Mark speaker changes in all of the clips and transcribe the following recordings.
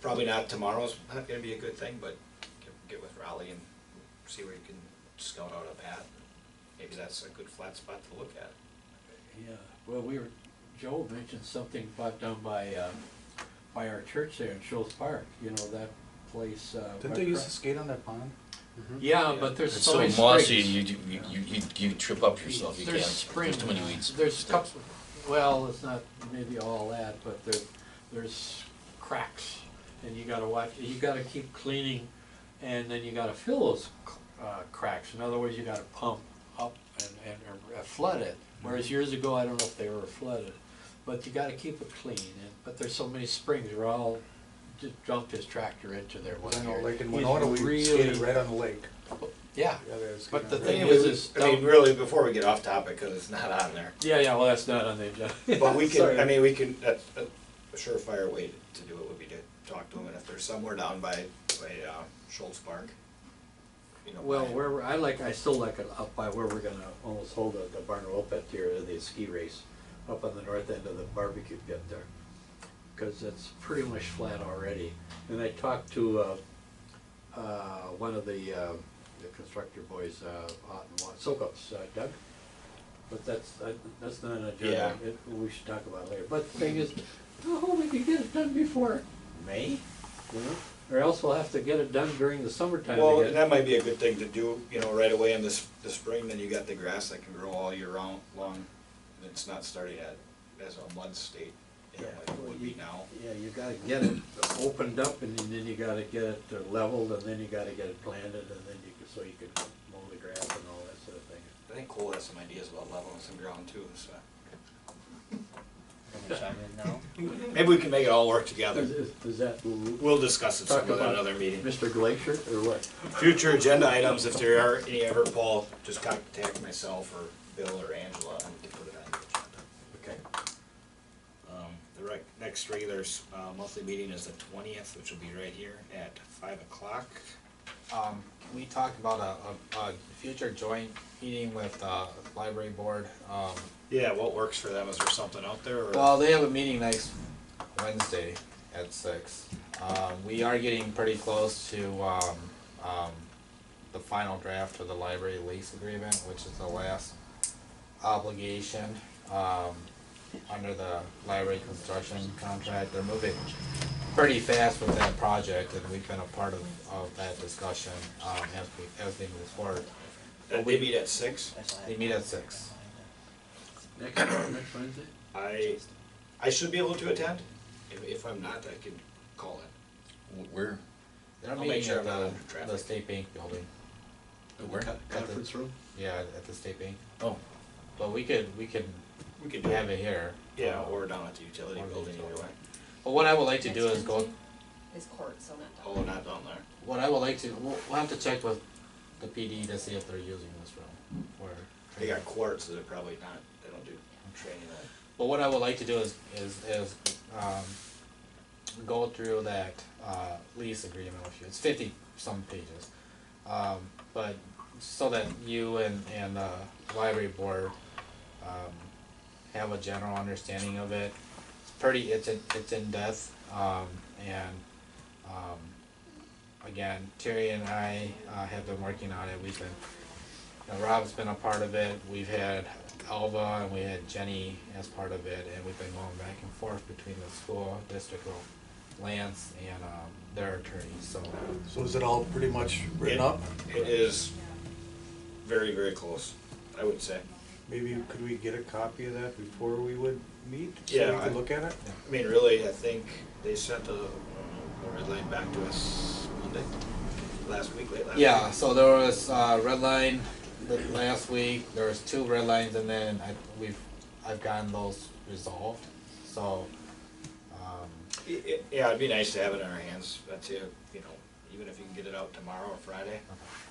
Speaker 1: probably not tomorrow's not gonna be a good thing, but get- get with Raleigh and see where you can scout out a path. Maybe that's a good flat spot to look at.
Speaker 2: Yeah, well, we were, Joel mentioned something about down by, uh, by our church there in Schultz Park, you know, that place, uh.
Speaker 3: Didn't
Speaker 2: by
Speaker 3: they used
Speaker 2: Cro-
Speaker 3: to skate on that pond?
Speaker 2: Yeah, but there's
Speaker 4: It's
Speaker 2: so
Speaker 4: so
Speaker 2: many
Speaker 4: mossy,
Speaker 2: springs.
Speaker 4: you, you, you, you, you trip up yourself, you can't,
Speaker 2: There's
Speaker 4: there's
Speaker 2: springs.
Speaker 4: too many weeds.
Speaker 2: There's cups, well, it's not maybe all that, but there, there's cracks, and you gotta watch, you gotta keep cleaning, and then you gotta fill those, uh, cracks, in other words, you gotta pump up and, and or flood it, whereas
Speaker 4: Mm-hmm.
Speaker 2: years ago, I don't know if they were flooded, but you gotta keep it clean, and, but there's so many springs, Raul just dumped his tractor into there one
Speaker 3: I know,
Speaker 2: year.
Speaker 3: like in
Speaker 2: He's
Speaker 3: Winona, we skated
Speaker 2: really,
Speaker 3: right on the lake.
Speaker 2: yeah,
Speaker 3: Yeah, they skated
Speaker 2: But
Speaker 3: on
Speaker 2: the
Speaker 3: lake.
Speaker 2: thing is, is.
Speaker 1: I mean, really, before we get off topic, because it's not on there,
Speaker 2: Yeah, yeah, well, that's not on the agenda.
Speaker 1: But we
Speaker 2: Sorry.
Speaker 1: can, I mean, we can, a, a a surefire way to- to do it would be to talk to them, and if they're somewhere down by, by, uh, Schultz Park, you know.
Speaker 2: Well,
Speaker 1: by-
Speaker 2: where, we're- I like, I still like it up by where we're gonna almost hold the, the barn roll pit here, the ski race, up on the north end of the barbecue pit there. Cause it's pretty much flat already, and I talked to, uh, uh, one of the, uh, the constructor boys, uh, out in Wa- Silkups, uh, Doug. But that's, uh, that's not an agenda,
Speaker 1: Yeah.
Speaker 2: it, we should talk about it later, but the thing is, oh, we could get it done before May, you know? Or else we'll have to get it done during the summertime to
Speaker 1: Well,
Speaker 2: get it
Speaker 1: and that might be a good thing to do, you know, right away in this, the spring, then you got the grass that can grow all year round, long, and it's not starting at, as a mud state, you know,
Speaker 2: Yeah.
Speaker 1: like it would be now.
Speaker 2: Yeah, you gotta get it opened up and then you gotta get it uh, leveled and then you gotta get it planted and then you can, so you can mow the grass and all that sort of thing.
Speaker 1: I think Cole has some ideas about leveling some ground too, so. Maybe we can make it all work together.
Speaker 2: Is- is- Does that l-
Speaker 1: We'll discuss it
Speaker 2: Talk
Speaker 1: some at
Speaker 2: about-
Speaker 1: another meeting.
Speaker 2: Mr. Glacier or what?
Speaker 1: Future agenda items, if there are any ever, Paul, just contact myself or Bill or Angela, and we can put it on the agenda.
Speaker 2: Okay.
Speaker 1: Um, The rec, next regular, s- uh, monthly meeting is the twentieth, which will be right here at five o'clock.
Speaker 5: Um, can we talk about a, a, a future joint meeting with, uh, library board? Um,
Speaker 1: Yeah, what works for them, is there something out there, or?
Speaker 5: well, they have a meeting next Wednesday at six. Um, we are getting pretty close to, um, um, the final draft of the library lease agreement, which is the last obligation, um, under the library construction contract. They're moving pretty fast with that project and we've been a part of, of that discussion, um, as we, as they move forward.
Speaker 1: Uh, They meet at six?
Speaker 5: They meet at six.
Speaker 2: Next, next Wednesday?
Speaker 1: I, I should be able to attend, if, if I'm not, I can call it.
Speaker 4: Where,
Speaker 5: They're
Speaker 1: I'll make
Speaker 5: meeting
Speaker 1: sure I'm
Speaker 5: at
Speaker 1: not
Speaker 5: the,
Speaker 1: under traffic.
Speaker 5: the state bank building.
Speaker 4: where?
Speaker 2: Conference room?
Speaker 5: Yeah, at the state bank.
Speaker 4: Oh,
Speaker 5: But we could, we could
Speaker 1: We could do
Speaker 5: have
Speaker 1: it,
Speaker 5: it here.
Speaker 1: yeah, or down at the utility
Speaker 5: Or the
Speaker 1: building either
Speaker 5: utility.
Speaker 1: way.
Speaker 5: But what I would like to do is go,
Speaker 6: Is court, so not.
Speaker 1: Oh, not down there.
Speaker 5: what I would like to, we'll, we'll have to check with the PD to see if they're using this room or.
Speaker 1: They got quartz, so they're probably not, they don't do training that.
Speaker 5: But what I would like to do is, is, is, um, go through that, uh, lease agreement with you, it's fifty some pages. Um, but, so that you and, and, uh, library board, um, have a general understanding of it. It's pretty, it's in, it's in depth, um, and, um, again, Terry and I, uh, have been working on it, we've been you know, Rob's been a part of it. We've had Alva and we had Jenny as part of it, and we've been going back and forth between the school district of Lance and um, their attorneys. So
Speaker 3: So is it all pretty much written
Speaker 1: Yeah.
Speaker 3: up?
Speaker 1: It is very, very close, I would say.
Speaker 3: Maybe could we get a copy of that before we would meet? So
Speaker 1: Yeah,
Speaker 3: we
Speaker 1: I-
Speaker 3: could look at it?
Speaker 1: I mean, really, I think they sent a, a red line back to us Monday, last week, late last week.
Speaker 5: yeah, so there was uh, red line th- last week. There was two red lines, and then I, we've I've gotten those resolved. So um,
Speaker 1: I- i- Yeah, it'd be nice to have it in our hands, that's it, you know, even if you can get it out tomorrow or Friday.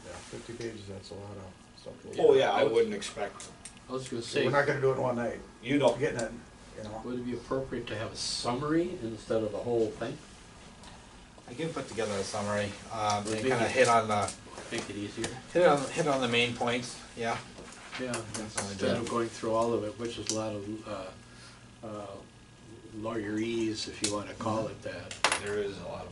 Speaker 3: Yeah, fifty pages, that's a lot of stuff. to look
Speaker 1: Oh,
Speaker 3: at.
Speaker 1: yeah, I wouldn't expect,
Speaker 2: I was gonna say,
Speaker 3: We're not gonna do it in one night,
Speaker 1: you don't
Speaker 3: we're getting it, you know,
Speaker 2: would it be appropriate to have a summary instead of the whole thing?
Speaker 5: I can put together a summary um, and
Speaker 2: Would
Speaker 5: kind
Speaker 2: be-
Speaker 5: of hit on the
Speaker 2: Make it easier?
Speaker 5: hit on hit on the main points. Yeah.
Speaker 2: Yeah,
Speaker 5: Definitely
Speaker 2: instead
Speaker 5: do.
Speaker 2: of going through all of it, which is a lot of, uh, uh, lawyerese, if you wanna call it that.
Speaker 1: there is a lot of